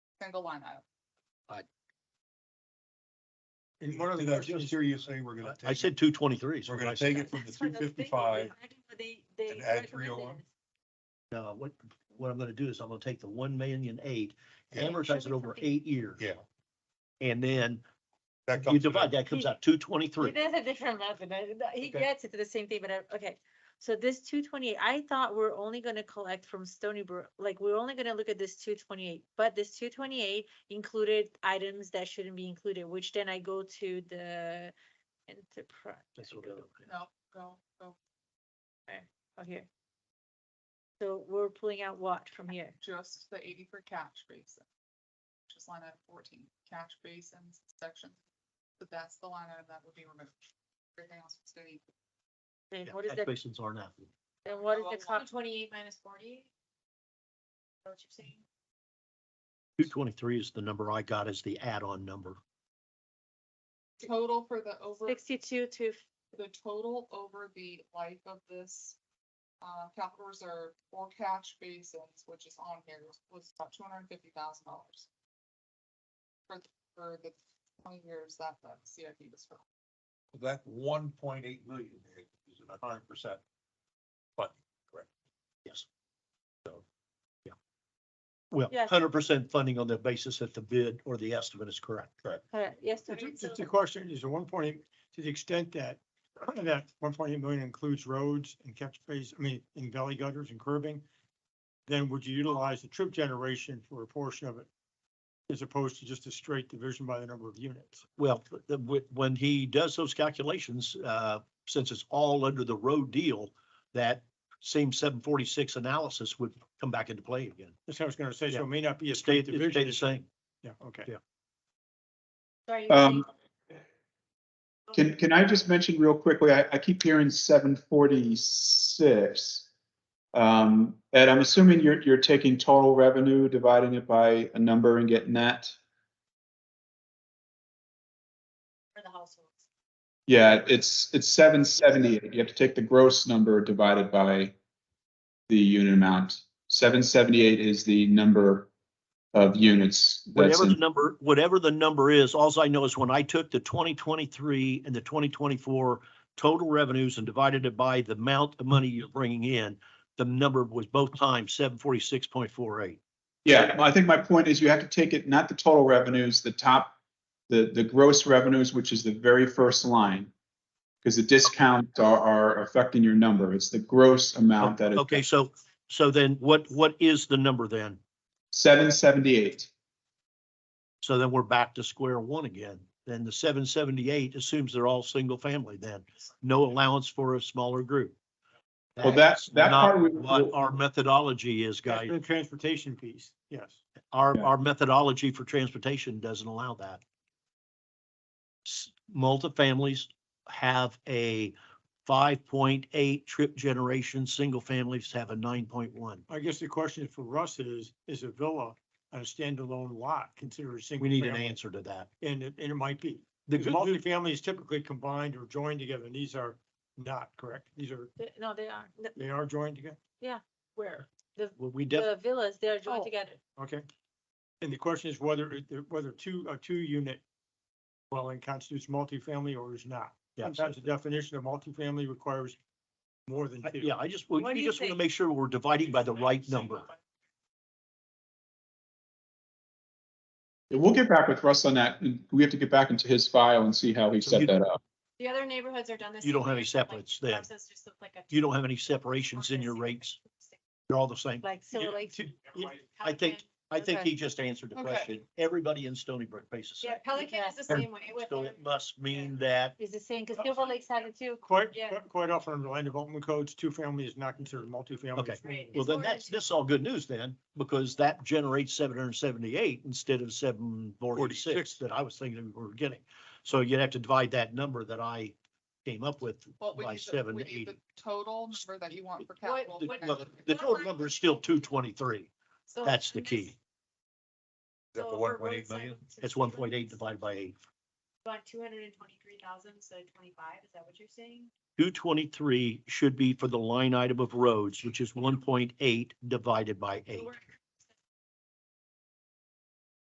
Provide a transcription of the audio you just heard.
single line item. In one of the, I just hear you say we're gonna. I take said two twenty-three. it- We're gonna take it from the That's for three the big fifty-five. one. I know They, they. and add recommended 301. it. No, uh, what, what I'm gonna do is I'm gonna take the one million eight, Yeah. amortize it over eight years. Yeah. And then that you comes divide, out. that comes out two twenty-three. It is a different method. I- He Okay. gets it to the same thing, but I- okay. So this two twenty-eight, I thought we're only gonna collect from Stony Brook, like, we're only gonna look at this two twenty-eight, but this two twenty-eight included items that shouldn't be included, which then I go to the enterprise. That's what Uh, I- No, go, go Oh, here. So we're pulling out what from here? just the eighty for catch basin. Just line item fourteen, catch basins section. So that's the line item that would be removed. Everything else would stay. equal. And Yeah, what is tax that, Basins are not. and what is Oh, the well, cost? Twenty-eight minus forty? What you're saying? Two twenty-three is the number I got as the add-on number. Total for the over, Sixty-two to the total over the life of this. Uh, capital reserve or catch basins, which is on here, was- was about two hundred and fifty thousand dollars. For, th- for the twenty years that the CIP was for. That one point eight million is a hundred percent funding, correct? Yes. So, Well, Yes. hundred percent funding on the basis that the bid or the estimate is correct. correct. correct, yes, It's sorry, a- It's so- a question, is the one point eight, to the extent that, that one point eight million includes roads and catch base, I mean, in valley gutters and curbing, then would you utilize the trip generation for a portion of it? As opposed to just a straight division by the number of units? Well, the- wh- when he does those calculations, uh, since it's all under the road deal, that same seven forty-six analysis would come back into play again. That's what I was gonna say, so Yeah. it may not be a It stayed, straight it stayed division. the same. Yeah, okay. sorry, you're saying- Um, can, can I just mention real quickly, I, I keep hearing seven forty-six. Um, Ed, I'm assuming you're, you're taking total revenue, dividing it by a number and getting that? for the households. Yeah, it's, it's seven seventy-eight. You have to take the gross number divided by the unit amount. Seven seventy-eight is the number of units. that's Whatever the in- number, whatever the number is, alls I know is when I took the twenty twenty-three and the twenty twenty-four total revenues and divided it by the amount of money you're bringing in, the number was both times seven forty-six point four eight. Yeah, well, I think my point is you have to take it, not the total revenues, the top, the, the gross revenues, which is the very first line. Because the discounts are, are affecting your number. It's the gross amount that is. Okay, so, so then what, what is the number then? Seven seventy-eight. So then we're back to square one again. Then the seven seventy-eight assumes they're all single family then, no allowance for a smaller group. Well, that- that not part we- What our methodology is, That's guys. The transportation piece, yes. Our, Yeah. our methodology for transportation doesn't allow that. S- Multifamilies have a five point eight trip generation, single families have a nine point one. I guess the question for Russ is, is a villa on a standalone lot considered a single? We need an family? answer to that. And it, and it might be. The Because good, multifamily is typically combined or joined together, and these are not correct. These are, They- No, they are, The- they are joined together, where, the, well, we def, the villas, they are Oh. joined together. okay? And the question is whether, it- whether two, a two-unit dwelling constitutes multifamily or is not. Yeah. Sometimes the definition of multifamily requires more than two. Uh, yeah, I just, we What do we you just want to think? make sure we're dividing by the right number. We'll get back with Russ on that. We have to get back into his file and see how he So set you- that up. The other neighborhoods are done this. You don't have any separates then. You don't have any separations in your rates. They're all the same. Like Silver Lake. Two- yeah, I think- I think Okay. he just answered the Okay. question. Everybody in Stony Brook faces Yeah, the Pelican is the Or- same way with. So them. it must mean that Is the same, because Silver Lake's had it too. Quite, Yeah. quite- quite often under land development codes, two-family is not considered multifamily. Okay. It's Right. Well, It's then more that's, into- this is all good news then, because that generates seven hundred and seventy-eight instead of seven forty-six 46. that I was thinking we were getting. So you'd have to divide that number that I came up with Well, we by need the- seven we to need the eighty. Total number that you want for What- capital. The for no, next year. the total number is still two twenty-three. So That's the this- key. Is that so the for one point eight roadside million? to It's one Silver point eight Lake's divided by eight. About two hundred and twenty-three thousand, so twenty-five, is that what you're saying? Two twenty-three should be for the line item of roads, which is one point eight divided by So eight. we're-